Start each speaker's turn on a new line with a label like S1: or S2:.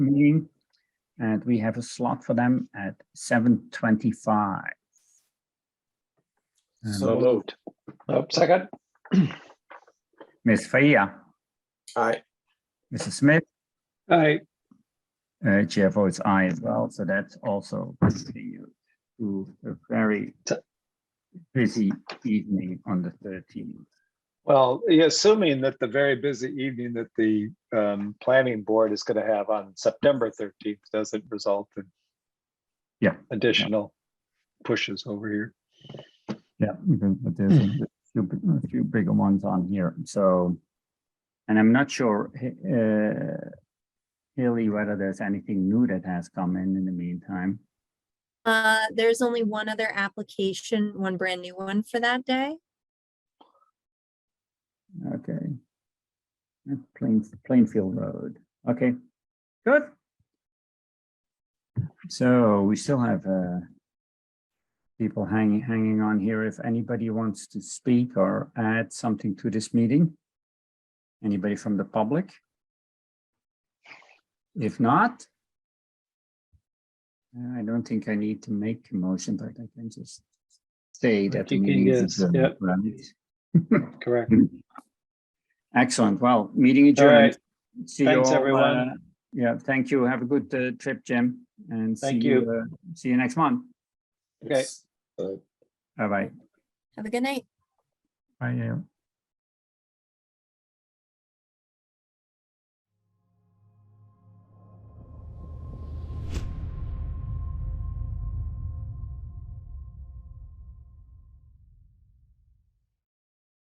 S1: meeting. And we have a slot for them at seven twenty-five. And
S2: So moved. Oh, second.
S1: Ms. Faya,
S2: Aye.
S1: Mrs. Smith,
S2: Aye.
S1: uh, chair votes aye as well, so that's also continued to a very
S2: T-
S1: busy evening on the thirteenth.
S2: Well, yeah, assuming that the very busy evening that the um, planning board is going to have on September 13th doesn't result in
S1: Yeah.
S2: additional pushes over here.
S1: Yeah, even- but there's a few, bi- a few bigger ones on here, so. And I'm not sure, uh, Hilly, whether there's anything new that has come in in the meantime.
S3: Uh, there's only one other application, one brand new one for that day.
S1: Okay. Uh, Plain, Plainfield Road, okay, good. So we still have, uh. People hanging, hanging on here. If anybody wants to speak or add something to this meeting. Anybody from the public? If not. uh, I don't think I need to make a motion, but I can just say that. the
S2: you can
S1: meeting is
S2: just-
S1: adjourned,
S2: yep.
S1: right?
S2: Correct.
S1: Excellent. Well, meeting
S2: All right.
S1: adjourned. See you
S2: Thanks,
S1: all,
S2: everyone.
S1: uh, Yeah, thank you. Have a good uh, trip, Jim. And see
S2: Thank you.
S1: uh, See you next month.
S2: Okay.
S1: Bye-bye.
S3: Have a good night.
S1: Bye. yeah.